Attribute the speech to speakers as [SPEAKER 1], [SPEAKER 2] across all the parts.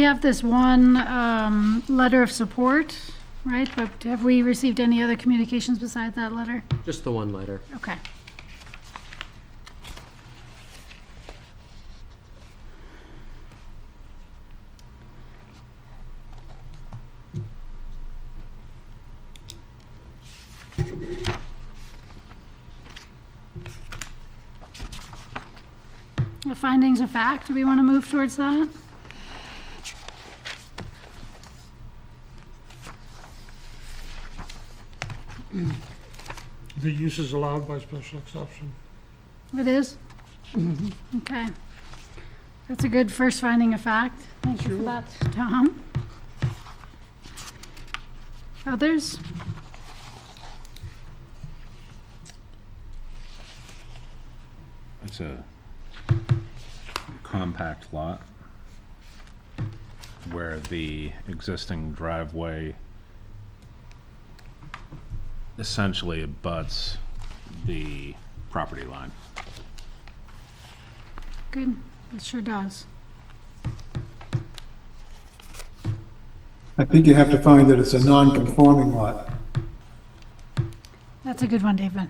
[SPEAKER 1] We have this one um, letter of support, right? But have we received any other communications besides that letter?
[SPEAKER 2] Just the one letter.
[SPEAKER 1] Okay. The findings of fact, do we want to move towards that?
[SPEAKER 3] The use is allowed by special exception.
[SPEAKER 1] It is? Okay. That's a good first finding of fact. Thank you for that, Tom. Others?
[SPEAKER 4] It's a compact lot where the existing driveway essentially abuts the property line.
[SPEAKER 1] Good, it sure does.
[SPEAKER 5] I think you have to find that it's a non-conforming lot.
[SPEAKER 1] That's a good one, David.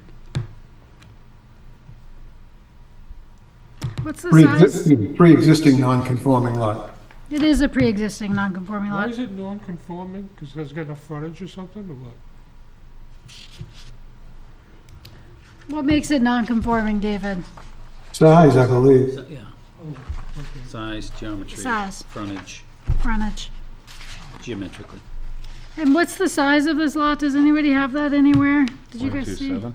[SPEAKER 1] What's the size?
[SPEAKER 5] Pre-existing, pre-existing non-conforming lot.
[SPEAKER 1] It is a pre-existing non-conforming
[SPEAKER 3] Why
[SPEAKER 1] lot.
[SPEAKER 3] is it non-conforming? Because it doesn't get enough frontage or something, or what?
[SPEAKER 1] What makes it non-conforming, David?
[SPEAKER 5] Size, I believe.
[SPEAKER 6] Yeah. Size, geometry,
[SPEAKER 1] Size.
[SPEAKER 6] frontage,
[SPEAKER 1] Frontage.
[SPEAKER 6] geometrically.
[SPEAKER 1] And what's the size of this lot? Does anybody have that anywhere? Did you guys see?
[SPEAKER 4] 0.27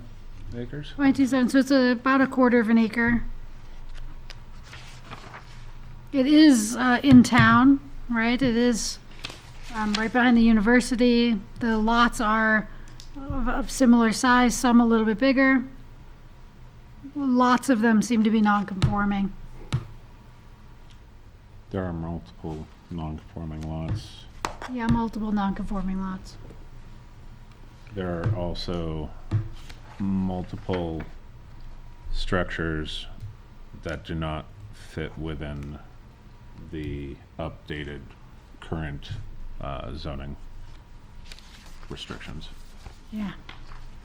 [SPEAKER 4] acres?
[SPEAKER 1] 27, so it's a- about a quarter of an acre. It is uh, in town, right? It is um, right behind the university. The lots are of- of similar size, some a little bit bigger. Lots of them seem to be non-conforming.
[SPEAKER 4] There are multiple non-conforming lots.
[SPEAKER 1] Yeah, multiple non-conforming lots.
[SPEAKER 4] There are also multiple structures that do not fit within the updated current uh, zoning restrictions.
[SPEAKER 1] Yeah,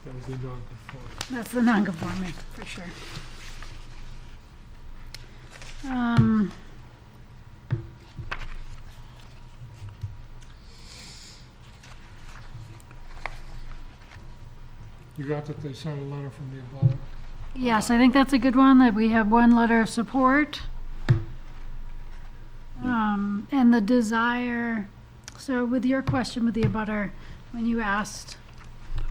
[SPEAKER 3] That would be non-conforming.
[SPEAKER 1] that's the non-conforming, for sure. Um,
[SPEAKER 3] You got that they sent a letter from the above.
[SPEAKER 1] Yes, I think that's a good one, that we have one letter of support. Um, and the desire, so with your question with the abutter, when you asked,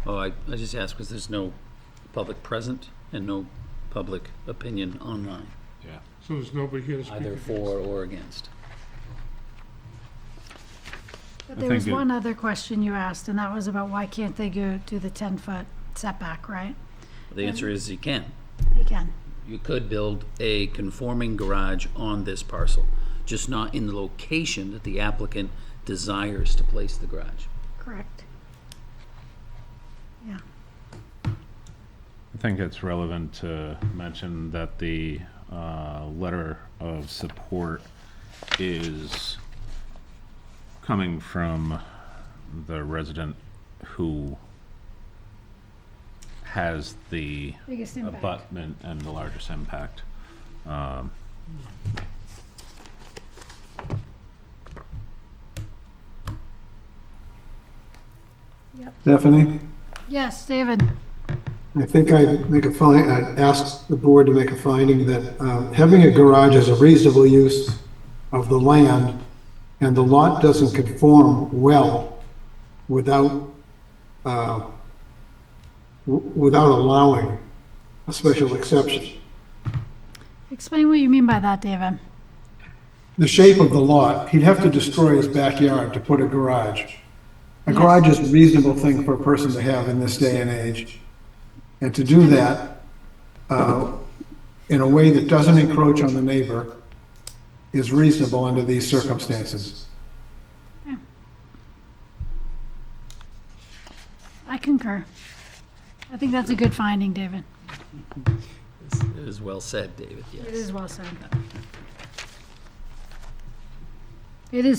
[SPEAKER 6] Oh, I, I just asked because there's no public present and no public opinion online,
[SPEAKER 4] Yeah.
[SPEAKER 3] So there's nobody here to speak
[SPEAKER 6] either
[SPEAKER 3] against.
[SPEAKER 6] for or against.
[SPEAKER 1] but
[SPEAKER 4] I
[SPEAKER 1] there was
[SPEAKER 4] think it-
[SPEAKER 1] one other question you asked, and that was about why can't they go do the ten-foot setback, right?
[SPEAKER 6] The answer is you can.
[SPEAKER 1] They can.
[SPEAKER 6] You could build a conforming garage on this parcel, just not in the location that the applicant desires to place the garage.
[SPEAKER 1] correct. Yeah,
[SPEAKER 4] I think it's relevant to mention that the uh, letter of support is coming from the resident who has the
[SPEAKER 1] biggest impact.
[SPEAKER 4] abutment and the largest impact.
[SPEAKER 5] Stephanie,
[SPEAKER 1] Yes, David,
[SPEAKER 5] I think I'd make a find, I'd ask the board to make a finding that um, having a garage is a reasonable use of the land, and the lot doesn't conform well without, uh, w- without allowing a special exception.
[SPEAKER 1] explain what you mean by that, David.
[SPEAKER 5] the shape of the lot, he'd have to destroy his backyard to put a garage. A garage is a reasonable thing for a person to have in this day and age. And to do that, uh, in a way that doesn't encroach on the neighbor is reasonable under these circumstances.
[SPEAKER 1] I concur. I think that's a good finding, David.
[SPEAKER 6] It's- It is well said, David, yes.
[SPEAKER 1] It is well said. It is